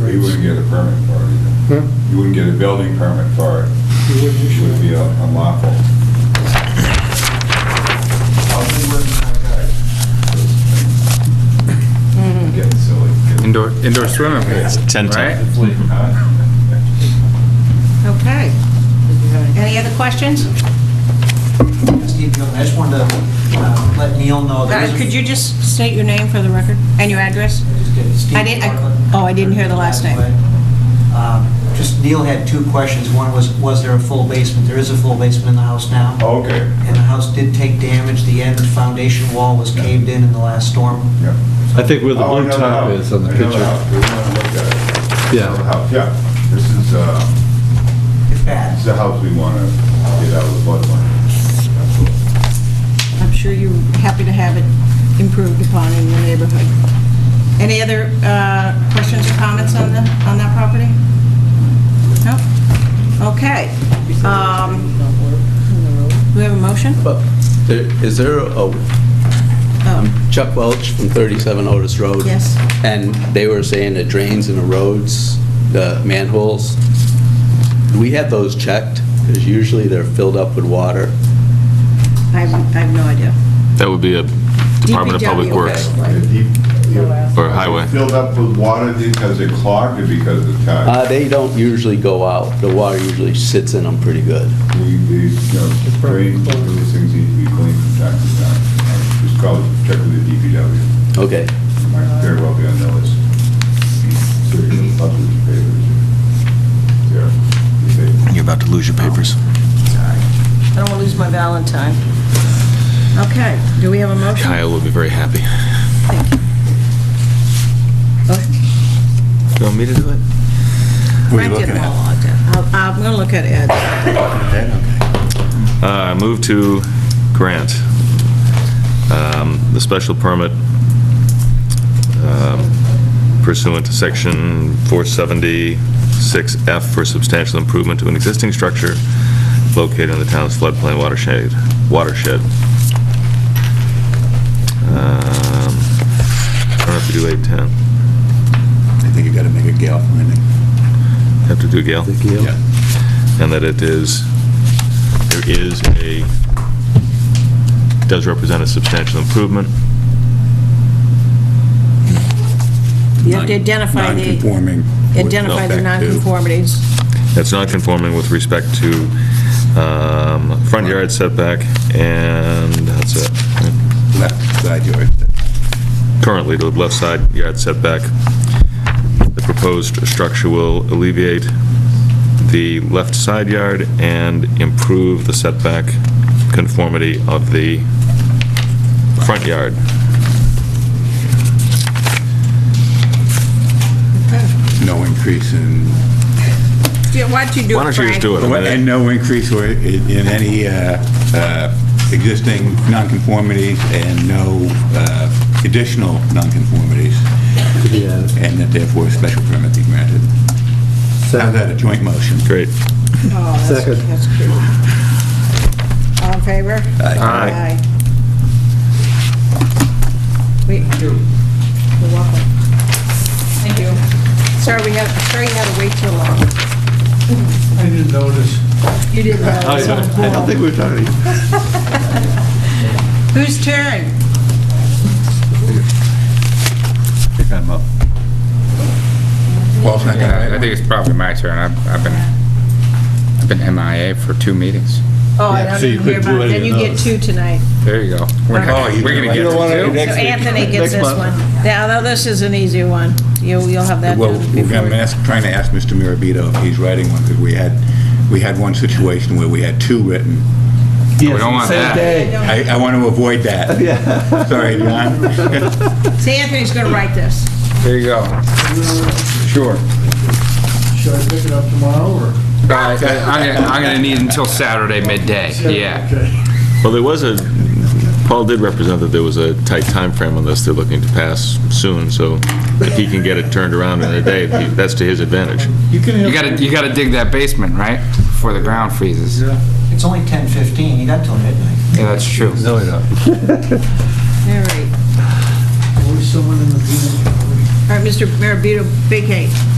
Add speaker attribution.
Speaker 1: But you wouldn't get a permit for it either.
Speaker 2: Huh?
Speaker 1: You wouldn't get a building permit for it.
Speaker 2: Hmm? You wouldn't
Speaker 1: It
Speaker 2: issue
Speaker 1: would be
Speaker 2: it.
Speaker 1: unlawful. How's it working out, guys? Getting silly.
Speaker 3: Indoor, indoor swimming pools,
Speaker 4: Ten
Speaker 3: right?
Speaker 4: times.
Speaker 1: Huh?
Speaker 5: Okay. Any other questions?
Speaker 6: Steve, Gilman, I just wanted to uh, let Neil know. there is
Speaker 5: Uh,
Speaker 6: a-
Speaker 5: Could you just state your name for the record and your address?
Speaker 6: Just get Steve
Speaker 5: I didn't- I-
Speaker 6: Bartlett.
Speaker 5: oh, I didn't hear the last name.
Speaker 6: Um, Just, Neil had two questions. One was, was there a full basement? There is a full basement in the house now.
Speaker 1: Okay.
Speaker 6: And the house did take damage. The end foundation wall was caved in in the last storm.
Speaker 1: Yeah.
Speaker 7: I think where the
Speaker 1: Oh, I
Speaker 7: blue
Speaker 1: know
Speaker 7: top
Speaker 1: house.
Speaker 7: is on the
Speaker 1: I know
Speaker 7: picture.
Speaker 1: house. We wanna look at it.
Speaker 7: Yeah.
Speaker 1: I know the house. Yeah, this is, uh,
Speaker 6: It's
Speaker 1: this is
Speaker 6: bad.
Speaker 1: the house we want to get out of the floodline. Absolutely.
Speaker 5: I'm sure you're happy to have it improved upon in your neighborhood. Any other uh, questions or comments on the, on that property? No? Okay. Um, Do we have a motion?
Speaker 8: But there, is there a, um,
Speaker 5: Oh,
Speaker 8: Chuck Welch from 37 Otis Road?
Speaker 5: Yes.
Speaker 8: And they were saying the drains and the roads, the manholes, do we have those checked? Because usually they're filled up with water.
Speaker 5: I have I have no idea.
Speaker 4: That would be a Department of Public
Speaker 5: DPW,
Speaker 4: Works
Speaker 5: okay.
Speaker 1: The deep- yeah.
Speaker 4: or highway.
Speaker 1: Filled up with water because it clogged or because of
Speaker 8: Uh,
Speaker 1: tide?
Speaker 8: They don't usually go out. The water usually sits in them pretty good.
Speaker 1: We, we, you know, drains, those things need to be cleaned from time to time. Uh, Just call, check with the DPW.
Speaker 8: Okay.
Speaker 1: It Might very well be on the list. Serious public papers. Yeah, you say.
Speaker 4: You're about to lose your papers.
Speaker 5: I don't want to lose my Valentine. Okay, do we have a motion?
Speaker 4: Kyle will be very happy.
Speaker 5: Thank you. Oh,
Speaker 4: You want me to do it?
Speaker 5: Frank did it. I'll- I'm going to look at Ed.
Speaker 4: Uh, Move to grant um, the special permit um, pursuant to section 476F for substantial improvement to an existing structure located in the town's floodplain watershed. watershed. Um, I don't have to do 810.
Speaker 9: I think you gotta make a Gale finding.
Speaker 4: Have to do Gail?
Speaker 9: Yeah.
Speaker 4: and that it is, there is a, does represent a substantial improvement.
Speaker 5: You have to identify the,
Speaker 9: Non-conforming. with
Speaker 5: identify the
Speaker 9: respect to-
Speaker 5: nonconformities.
Speaker 4: That's not conforming with respect to um, front yard setback, and that's it.
Speaker 9: Left side yard.
Speaker 4: Currently, the left side yard setback, the proposed structure will alleviate the left side yard and improve the setback conformity of the front yard.
Speaker 9: No increase in,
Speaker 5: Yeah, why don't you do it,
Speaker 4: Why don't you just
Speaker 5: Frank?
Speaker 4: do it? I mean,
Speaker 9: and no increase or i- in any uh, uh, existing nonconformities and no uh, additional nonconformities,
Speaker 7: Yeah.
Speaker 9: and that therefore a special permit be granted. How's that, a joint motion?
Speaker 4: Great.
Speaker 5: Oh, that's-
Speaker 7: Second.
Speaker 5: That's cute. All in favor?
Speaker 4: Aye.
Speaker 5: We- You're welcome. Thank you. Sorry, we had, sorry you had to wait too long.
Speaker 2: I didn't notice.
Speaker 5: You didn't know.
Speaker 9: I don't think we're talking.
Speaker 5: Whose turn?
Speaker 9: Pick them up. Paul's not gonna-
Speaker 3: Yeah, I think it's probably my turn. I've I've been, I've been MIA for two meetings.
Speaker 5: Oh, I
Speaker 7: Yeah,
Speaker 5: don't
Speaker 7: so you
Speaker 5: even hear
Speaker 7: couldn't do
Speaker 5: about it.
Speaker 7: any
Speaker 5: Then
Speaker 7: of
Speaker 5: you get
Speaker 7: those.
Speaker 5: two tonight.
Speaker 3: There you go. We're
Speaker 9: Oh,
Speaker 3: gonna
Speaker 9: you-
Speaker 3: we're gonna
Speaker 9: you
Speaker 3: get
Speaker 9: don't wanna
Speaker 3: to
Speaker 9: do
Speaker 3: two.
Speaker 5: So Anthony gets this one. Yeah, although this is an easy one. You'll, you'll have that
Speaker 9: Well,
Speaker 5: done before.
Speaker 9: we're gonna ask- trying to ask Mr. Mirabito if he's writing one, because we had, we had one situation where we had two written.
Speaker 7: We
Speaker 3: don't want that.
Speaker 9: I, I want to avoid that. Yeah. Sorry, John.
Speaker 5: See, Anthony's going to write this.
Speaker 3: There you go.
Speaker 9: Sure.
Speaker 2: Should I pick it up tomorrow, or?
Speaker 3: Uh, I'm gonna, I'm gonna need until Saturday midday, yeah.
Speaker 2: Okay.
Speaker 4: Well, there was a, Paul did represent that there was a tight time frame on this they're looking to pass soon, so if he can get it turned around in a day, he- that's to his advantage.
Speaker 2: You can.
Speaker 3: You gotta, you gotta dig that basement, right? Before the ground freezes. Yeah,
Speaker 6: It's only 10:15. You got till midnight.
Speaker 3: that's true.
Speaker 5: All right.
Speaker 2: Always someone in the.
Speaker 5: All right, Mr. Maribito, vacate.